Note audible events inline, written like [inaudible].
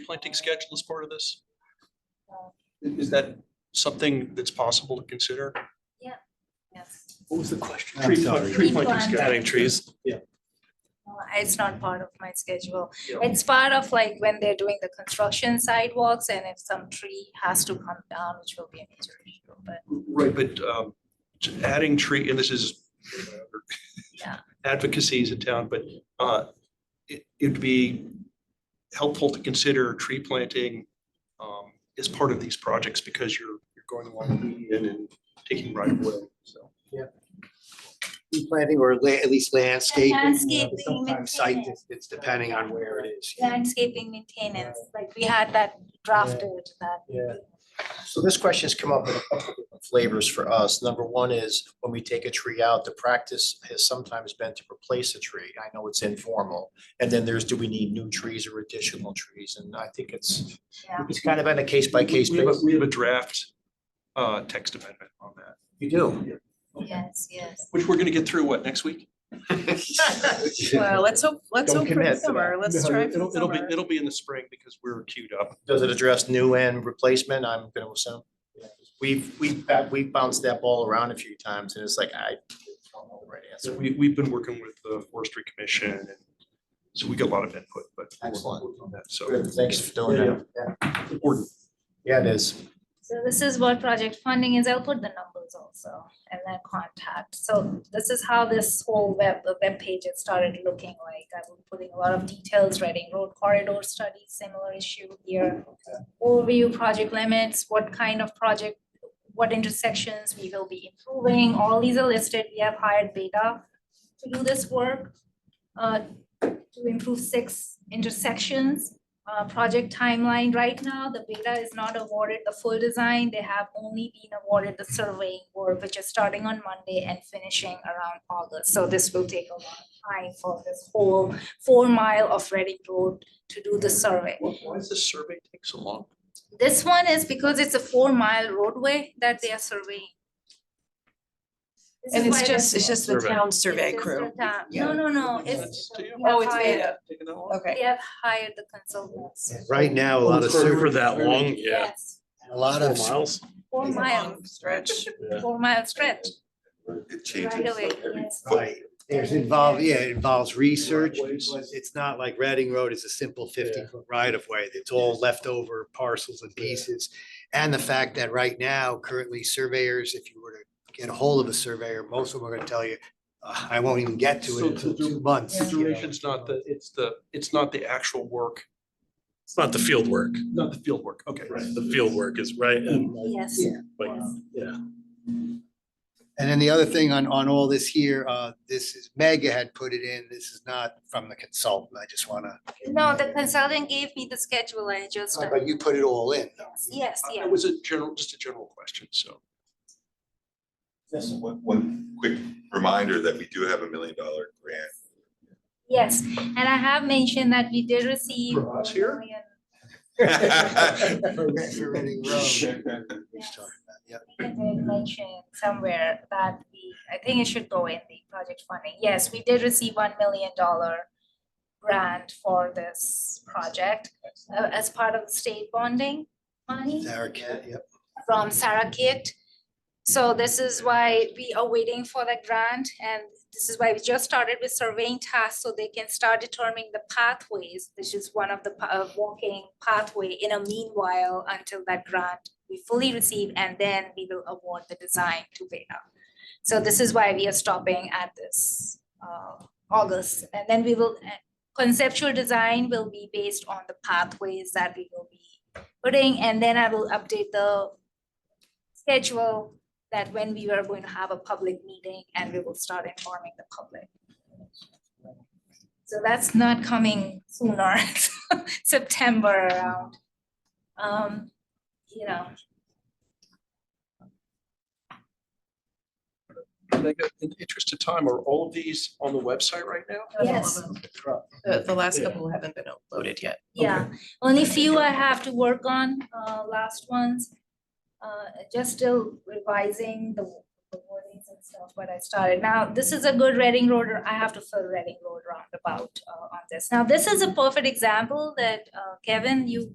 planting schedule as part of this? Is that something that's possible to consider? Yes. What was the question? I'm Tree sorry. plant- tree Tree planting planting. schedule. planting trees. No, It's not part of my schedule. Yeah. It's part of like when they're doing the construction sidewalks and if some tree has to come down, which will be a major issue, but Right, but um, t- adding tree, and this is Yeah. [laughs] advocacy is in town, but uh, it- it'd be helpful to consider tree planting um, as part of these projects because you're, you're going along the median and taking right away, so. tree planting or la- at least landscaping. you know, Landscaping, Sometimes site maintenance. distance, depending on where it is. landscaping maintenance, like we had that drafted that. Yeah. So this question's come up in a couple of different flavors for us. Number one is when we take a tree out, the practice has sometimes been to replace a tree. I know it's informal. And then there's, do we need new trees or additional trees? And I think it's, Yeah. it's kind of on a case by case We have a- basis. We have a draft uh, text amendment on that, [laughs] You do. Yes, yes. which we're going to get through, what, next week? Well, let's hope, let's Don't hope for the commit to summer. that. Let's try for the It'll, it'll be, summer. it'll be in the spring because we're queued up. Does it address new and replacement? I'm gonna assume. We've, we've, ba- we've bounced that ball around a few times and it's like, I don't know the right So answer. we, we've been working with the forestry commission and so we get a lot of input, but. we're Excellent. working on that, So. Good, Thanks for doing that. Yeah. important. Yeah, it is. So this is what project funding is. I'll put the numbers also and then contact. So this is how this whole web, the web page had started looking like. I've been putting a lot of details, writing road corridor studies, similar issue here. Overview project limits, what kind of project, what intersections we will be improving. All these are listed. We have hired Beta to do this work. uh, to improve six intersections uh, project timeline. Right now, the beta is not awarded the full design. They have only been awarded the surveying work, which is starting on Monday and finishing around August. So this will take a lot of time for this whole four mile of Reading Road to do the survey. Why why does this survey take so long? This one is because it's a four mile roadway that they are surveying. This And is it's why just, the- it's just the Survey. town it's survey just the crew. town- Yeah. No, no, no, it's. That's to you. we have Oh, it's hired- beta. Taking that long? Okay. We have hired the consultants. Right now, a lot of, For sur- for that long, yeah. Yes, a lot Four of, miles. four It's a miles. long Stretch. four mile stretch. It Right changes away, every yes. foot. right, there's involved, yeah, it involves research. because It's not like Reading Road is a simple fifty Yeah. foot right of way. It's all leftover parcels and pieces. And the fact that right now, currently surveyors, if you were to get a hold of a surveyor, most of them are gonna tell you, "Uh, I won't even get to So it until to do- two months. The you know. Duration's not the, it's the, it's not the actual work, It's not the field work. not the field work, okay. The field work is right. and, uh, Yes. Yeah. Like, Yes. yeah. And then the other thing on, on all this here, uh, this is, Mega had put it in, this is not from the consultant, I just wanna. No, the consultant gave me the schedule, I just, Oh, But you put it all in. yes, yes, Uh, yeah. It was a general, just a general question, so. Just one, one quick reminder that we do have a million dollar grant. [laughs] Yes, and I have mentioned that we did receive. For us here? one million. [laughs] For Reading Road. He's Yes, talking about, yeah. I did mention somewhere that we, I think it should go in the project funding. Yes, we did receive one million dollar grant for this project uh, as part of the state bonding money. Sarah Cat, yep. from Sarah Kate. So this is why we are waiting for the grant and this is why we just started with surveying tasks so they can start determining the pathways. This is one of the pa- uh, walking pathway in a meanwhile until that grant we fully receive and then we will award the design to Veda. So this is why we are stopping at this uh, August and then we will, uh, conceptual design will be based on the pathways that we will be putting, and then I will update the schedule that when we are going to have a public meeting and we will start informing the public. So that's not coming sooner, [laughs] September around. Um, you know, Mega, In the interest of time, are all of these on the website right now? yes, The, the last couple haven't been uploaded yet. yeah, only few I have to work on, uh, last ones. Uh, just still revising the the warnings and stuff, but I started. Now, this is a good Reading Road, or I have to fill Reading Road roundabout uh, on this. Now, this is a perfect example that uh, Kevin, you